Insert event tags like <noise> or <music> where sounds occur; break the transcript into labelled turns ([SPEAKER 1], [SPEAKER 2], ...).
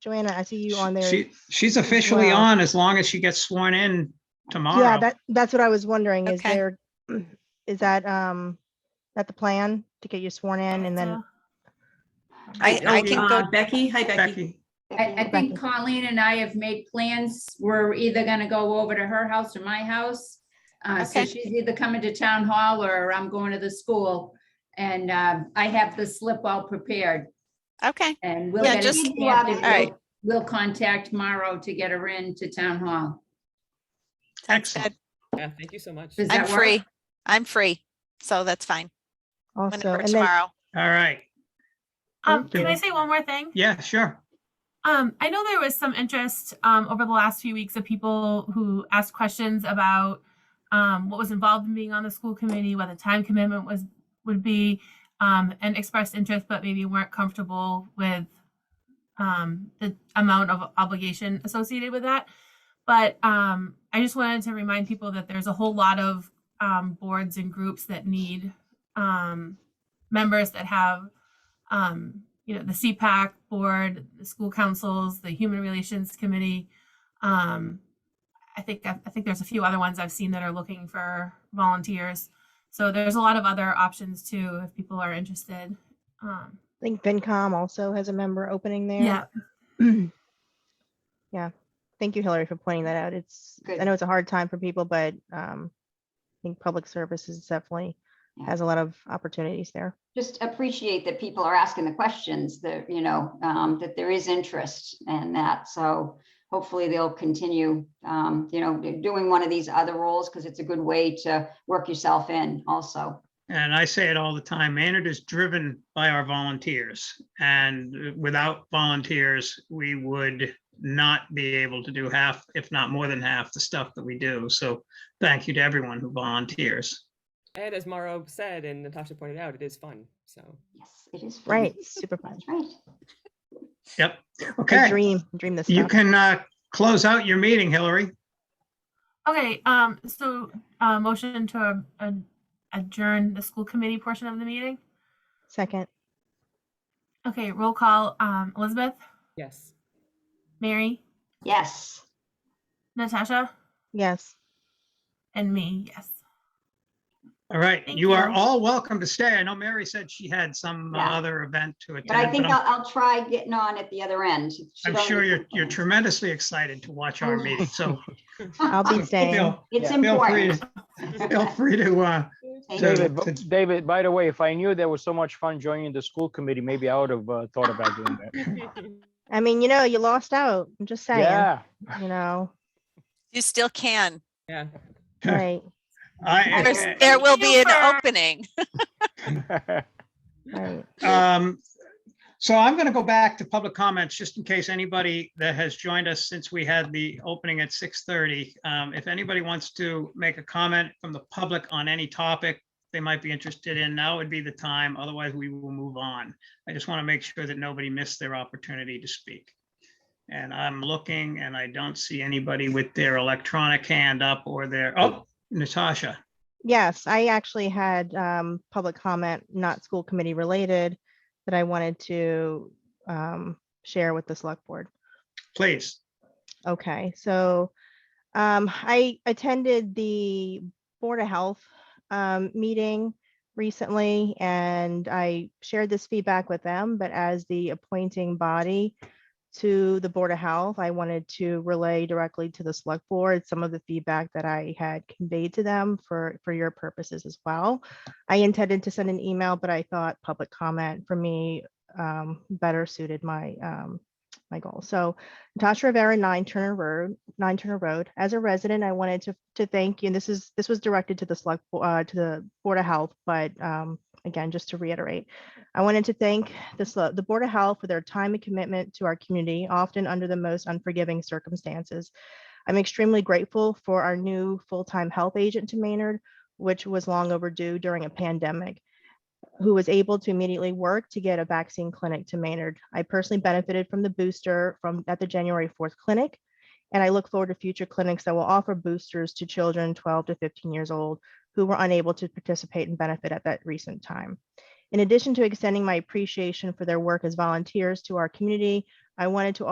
[SPEAKER 1] Joanna, I see you on there.
[SPEAKER 2] She, she's officially
[SPEAKER 1] well.
[SPEAKER 2] on as long as she gets sworn in
[SPEAKER 1] Yeah,
[SPEAKER 2] tomorrow.
[SPEAKER 1] that, that's what I was wondering. Is
[SPEAKER 3] Okay.
[SPEAKER 1] there, is that, um, that the plan to get you sworn in and then,
[SPEAKER 3] I, I can
[SPEAKER 4] Uh,
[SPEAKER 3] go,
[SPEAKER 4] Becky, hi Becky.
[SPEAKER 2] Becky,
[SPEAKER 5] I, I think Colleen and I have made plans. We're either gonna go over to her house or my house. Uh, so
[SPEAKER 3] Okay.
[SPEAKER 5] she's either coming to town hall or I'm going to the school. And, um, I have the slip all prepared
[SPEAKER 3] okay,
[SPEAKER 5] and we'll.
[SPEAKER 3] Yeah,
[SPEAKER 5] get it
[SPEAKER 3] just-
[SPEAKER 5] stamped and
[SPEAKER 3] all right.
[SPEAKER 5] We'll we'll contact Mauro to get her in to town hall.
[SPEAKER 3] sounds
[SPEAKER 2] excellent.
[SPEAKER 3] good.
[SPEAKER 6] Yeah, thank you so much.
[SPEAKER 5] Does
[SPEAKER 3] I'm
[SPEAKER 5] that work?
[SPEAKER 3] free. I'm free. So that's fine.
[SPEAKER 1] also,
[SPEAKER 3] Whenever
[SPEAKER 1] and then,
[SPEAKER 3] tomorrow.
[SPEAKER 2] All right.
[SPEAKER 4] Um,
[SPEAKER 2] Okay.
[SPEAKER 4] can I say one more thing?
[SPEAKER 2] Yeah, sure.
[SPEAKER 4] Um, I know there was some interest um, over the last few weeks of people who asked questions about um, what was involved in being on the school committee, what the time commitment was would be, um, and expressed interest, but maybe weren't comfortable with um, the amount of obligation associated with that. But um, I just wanted to remind people that there's a whole lot of um, boards and groups that need um, members that have um, you know, the CPAC board, the school councils, the Human Relations Committee. Um, I think I, I think there's a few other ones I've seen that are looking for volunteers. So there's a lot of other options too if people are interested. Um,
[SPEAKER 1] I think FinCom also has a member opening
[SPEAKER 4] yeah,
[SPEAKER 1] there. Yeah, thank you Hillary for pointing that out. It's, I
[SPEAKER 5] Good.
[SPEAKER 1] know it's a hard time for people, but, um, I think public services definitely
[SPEAKER 7] Yeah.
[SPEAKER 1] has a lot of opportunities there.
[SPEAKER 7] Just appreciate that people are asking the questions, that, you know, um, that there is interest in that. So hopefully they'll continue, um, you know, doing one of these other roles because it's a good way to work yourself in also.
[SPEAKER 2] And I say it all the time, Maynard is driven by our volunteers. And uh, without volunteers, we would not be able to do half, if not more than half, the stuff that we do. So thank you to everyone who volunteers.
[SPEAKER 6] And as Mauro said and Natasha pointed out, it is fun. So
[SPEAKER 7] Yes, it is. fun.
[SPEAKER 1] Right, super fun.
[SPEAKER 7] <laughs> That's right.
[SPEAKER 2] Yep.
[SPEAKER 1] I
[SPEAKER 2] Okay,
[SPEAKER 1] dream, dream this
[SPEAKER 2] you
[SPEAKER 1] stuff.
[SPEAKER 2] can uh, close out your meeting, Hillary.
[SPEAKER 4] okay. Um, so uh, motion to uh, adjourn the school committee portion of the meeting.
[SPEAKER 1] Second,
[SPEAKER 4] Okay, roll call. Um, Elizabeth,
[SPEAKER 6] yes.
[SPEAKER 4] Mary,
[SPEAKER 7] Yes.
[SPEAKER 4] Natasha,
[SPEAKER 1] yes.
[SPEAKER 4] and me. Yes.
[SPEAKER 2] All right,
[SPEAKER 4] Thank
[SPEAKER 2] you are
[SPEAKER 4] you.
[SPEAKER 2] all welcome to stay. I know Mary said she had some uh,
[SPEAKER 7] Yeah.
[SPEAKER 2] other event to attend.
[SPEAKER 7] But I think
[SPEAKER 2] I'm-
[SPEAKER 7] I'll, I'll try getting on at the other end. She
[SPEAKER 2] I'm
[SPEAKER 7] don't
[SPEAKER 2] sure
[SPEAKER 7] need
[SPEAKER 2] you're, you're
[SPEAKER 7] <laughs> complaints.
[SPEAKER 2] tremendously excited to watch our
[SPEAKER 7] Oh.
[SPEAKER 2] meeting,
[SPEAKER 7] <laughs>
[SPEAKER 2] so.
[SPEAKER 1] I'll be staying.
[SPEAKER 2] feel-
[SPEAKER 7] It's
[SPEAKER 2] Feel free,
[SPEAKER 7] important. <laughs>
[SPEAKER 2] feel free to, uh,
[SPEAKER 7] Thank
[SPEAKER 2] to-
[SPEAKER 7] you.
[SPEAKER 8] David, bu- David, by the way, if I knew there was so much fun joining the school committee, maybe I would have uh, thought about doing that.
[SPEAKER 1] I mean, you know, you lost out. I'm just saying,
[SPEAKER 8] Yeah,
[SPEAKER 1] you
[SPEAKER 2] <laughs>
[SPEAKER 1] know,
[SPEAKER 3] You still can.
[SPEAKER 6] Yeah.
[SPEAKER 1] right.
[SPEAKER 2] I,
[SPEAKER 3] There's,
[SPEAKER 7] Okay.
[SPEAKER 3] there will be an
[SPEAKER 4] Super.
[SPEAKER 3] opening.
[SPEAKER 8] <laughs>
[SPEAKER 1] Right.
[SPEAKER 2] Um, so I'm going to go back to public comments, just in case anybody that has joined us since we had the opening at six thirty. Um, if anybody wants to make a comment from the public on any topic they might be interested in, now would be the time. Otherwise, we will move on. I just want to make sure that nobody missed their opportunity to speak. And I'm looking and I don't see anybody with their electronic hand up or their, oh, Natasha.
[SPEAKER 1] Yes, I actually had um public comment, not school committee related, that I wanted to um share with the select board.
[SPEAKER 2] Please.
[SPEAKER 1] Okay, so um, I attended the Board of Health um, meeting recently, and I shared this feedback with them, but as the appointing body to the Board of Health, I wanted to relay directly to the Select Board some of the feedback that I had conveyed to them for, for your purposes as well. I intended to send an email, but I thought public comment for me um, better suited my, um, my goal. So Natasha Rivera, Nine Turner Road, Nine Turner Road. As a resident, I wanted to, to thank you. And this is, this was directed to the select, Bo- uh, to the Board of Health, but, um, again, just to reiterate, I wanted to thank the, sele- the Board of Health for their time and commitment to our community, often under the most unforgiving circumstances. I'm extremely grateful for our new full-time health agent to Maynard, which was long overdue during a pandemic who was able to immediately work to get a vaccine clinic to Maynard. I personally benefited from the booster from at the January 4th clinic. And I look forward to future clinics that will offer boosters to children 12 to 15 years old who were unable to participate and benefit at that recent time. In addition to extending my appreciation for their work as volunteers to our community, I wanted to